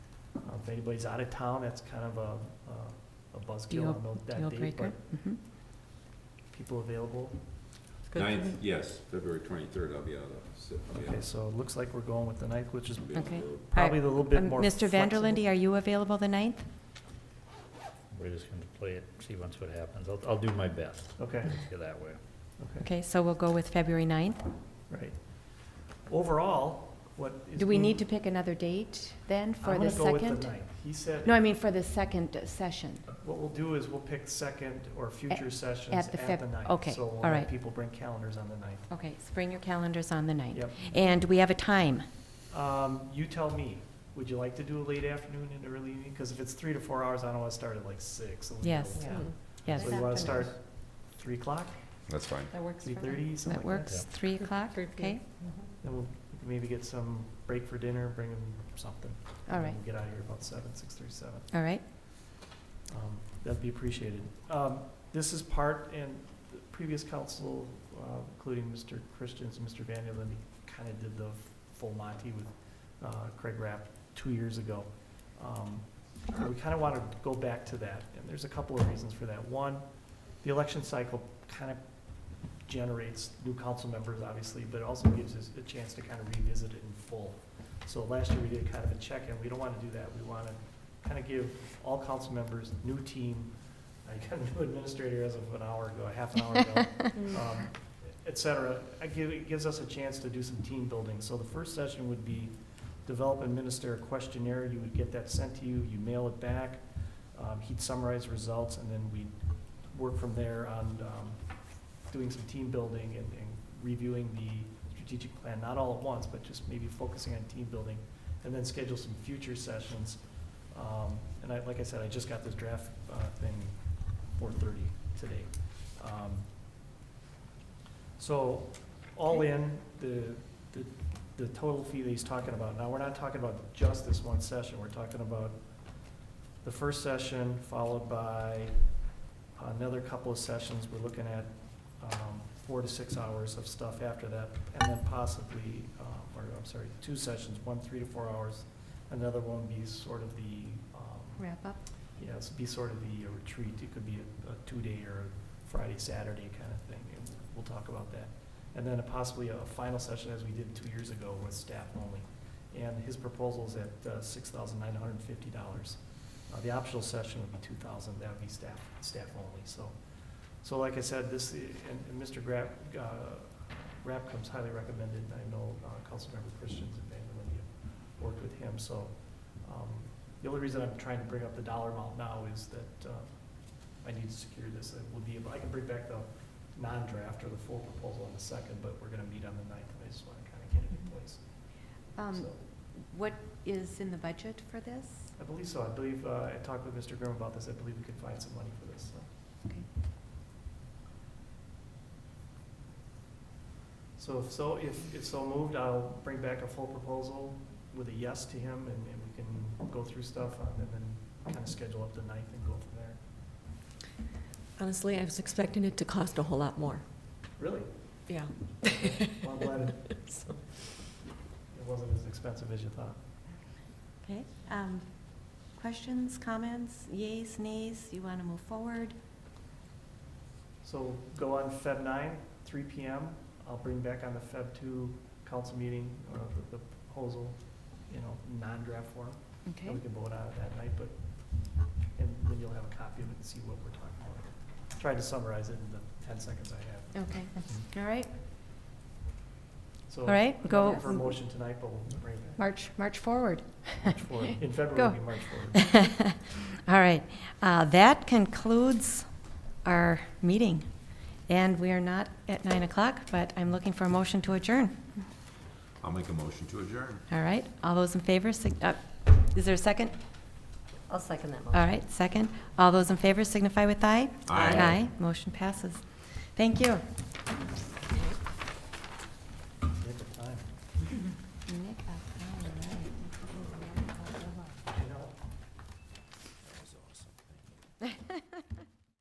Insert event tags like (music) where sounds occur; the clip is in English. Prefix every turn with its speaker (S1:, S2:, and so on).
S1: Uh, If anybody's out of town, that's kind of a, a- a
S2: Deal-
S1: buzzkill on tho- that
S2: Deal
S1: date,
S2: breaker?
S1: but
S2: Mhm.
S1: people available.
S2: It's good for
S3: Ninth,
S2: me.
S3: yes, February twenty-third, I'll be out of, si- I'll be out.
S1: Okay, so it looks like we're going with the ninth, which is
S3: I'll be on the
S2: Okay.
S3: road.
S1: probably a little bit
S2: Um,
S1: more.
S2: Mr.
S1: flexible.
S2: Vanderlinde, are you available the ninth?
S4: We're just gonna play it, see once what happens. I'll, I'll do my best,
S1: Okay,
S4: get that way.
S1: okay,
S2: Okay, so we'll go with February ninth.
S1: right. Overall, what is.
S2: Do we
S1: being-
S2: need to pick another date then for the
S1: I'm gonna go with the
S2: second?
S1: ninth. He said,
S2: No, I mean for the second session.
S1: what we'll do is we'll pick second or future sessions
S2: at
S1: at
S2: the
S1: the
S2: Feb-
S1: ninth.
S2: okay,
S1: So we'll
S2: all
S1: let
S2: right.
S1: people bring calendars on the ninth.
S2: Okay, so bring your calendars on the ninth.
S1: Yep.
S2: And we have a time.
S1: Um, you tell me, would you like to do a late afternoon and early evening? Because if it's three to four hours, I don't want to start at like six. and we go
S2: Yes.
S1: to-
S5: Yeah.
S2: Yes,
S1: So you want to start three o'clock,
S6: That's fine.
S5: That works
S1: three
S5: for me.
S1: thirty, something
S2: that
S1: like that?
S2: works, three o'clock,
S5: Three
S2: okay?
S1: Then we'll maybe get some break for dinner, bring them something.
S2: All
S1: and
S2: right,
S1: we'll Get out of here about seven, six thirty, seven.
S2: all right.
S1: Um, That'd be appreciated. Um, This is part, and the previous council, uh, including Mr. Christians and Mr. Van Vanderlinde, kind of did the full Monty with uh, Craig Rapp two years ago. Um, and We kind of want to go back to that, and there's a couple of reasons for that. One, the election cycle kind of generates new council members, obviously, but it also gives us a chance to kind of revisit it in full. So last year, we did kind of a check-in. We don't want to do that. We want to kind of give all council members, new team. I got a new administrator as of an hour ago, a half an hour ago, um, et cetera. I give, it gives us a chance to do some team building. So the first session would be develop and minister a questionnaire. You would get that sent to you, you mail it back. Um, he'd summarize results and then we'd work from there on, um, doing some team building and, and reviewing the strategic plan, not all at once, but just maybe focusing on team building. And then schedule some future sessions um, And I, like I said, I just got this draft uh, thing four thirty today. Um, So, all in, the, the, the total fee that he's talking about, now, we're not talking about just this one session, we're talking about the first session followed by another couple of sessions, we're looking at um, four to six hours of stuff after that, and then possibly, um, or, I'm sorry, two sessions, one three to four hours, Another one would be sort of the, um,
S2: Wrap up.
S1: yeah, it's be sort of the uh, retreat. It could be a, a two-day or a Friday, Saturday kind of thing. and We'll talk about that. And then possibly a final session as we did two years ago with staff only. And his proposal is at uh, six thousand nine hundred and fifty dollars. Uh, The optional session would be two thousand, that would be staff, staff only, so. So like I said, this, uh, and, and Mr. Grapp, uh, Rapp comes highly recommended. and I know, uh, Councilmember Christians and Van Vanderlinde worked with him, so, um, the only reason I'm trying to bring up the dollar amount now is that uh, I need to secure this. It will be, I can bring back the non-draft or the full proposal on the second, but we're gonna meet on the ninth, and I just wanna kinda get it in place.
S5: Um,
S1: So,
S5: What is in the budget for this?
S1: I believe so. I believe, uh, I talked with Mr. Grimm about this. I believe we could find some money for this, so.
S5: Okay.
S1: So if so, if, if so moved, I'll bring back a full proposal with a yes to him, and, and we can go through stuff on, and then kinda schedule up the ninth and go from there.
S7: Honestly, I was expecting it to cost a whole lot more.
S1: Really?
S7: Yeah.
S1: Well, I'm glad it it wasn't as expensive as you thought.
S5: Okay. Um, Questions, comments, yays, nays? You want to move forward?
S1: So go on Feb nine, three P M. I'll bring back on the Feb two council meeting, uh, the the proposal, you know, non-draft form. And
S5: Okay.
S1: we can vote on it that night, but, and then you'll have a copy of it and see what we're talking about. Tried to summarize it in the ten seconds I have.
S5: Okay. All right.
S1: So
S2: All right, go
S1: nothing For a motion tonight, but we'll bring it back
S2: march, march forward.
S1: March
S2: (laughs)
S1: forward. In February,
S2: Go.
S1: it'll be March forward.
S2: (laughs) All right, uh, that concludes our meeting. And we are not at nine o'clock, but I'm looking for a motion to adjourn.
S3: I'll make a motion to adjourn.
S2: All right, all those in favor, sig- uh, is there a second?
S7: I'll second that motion.
S2: All right, second. All those in favor signify with aye.
S3: Aye.
S2: Aye, motion passes. Thank you. 네, 아, 네. (laughs)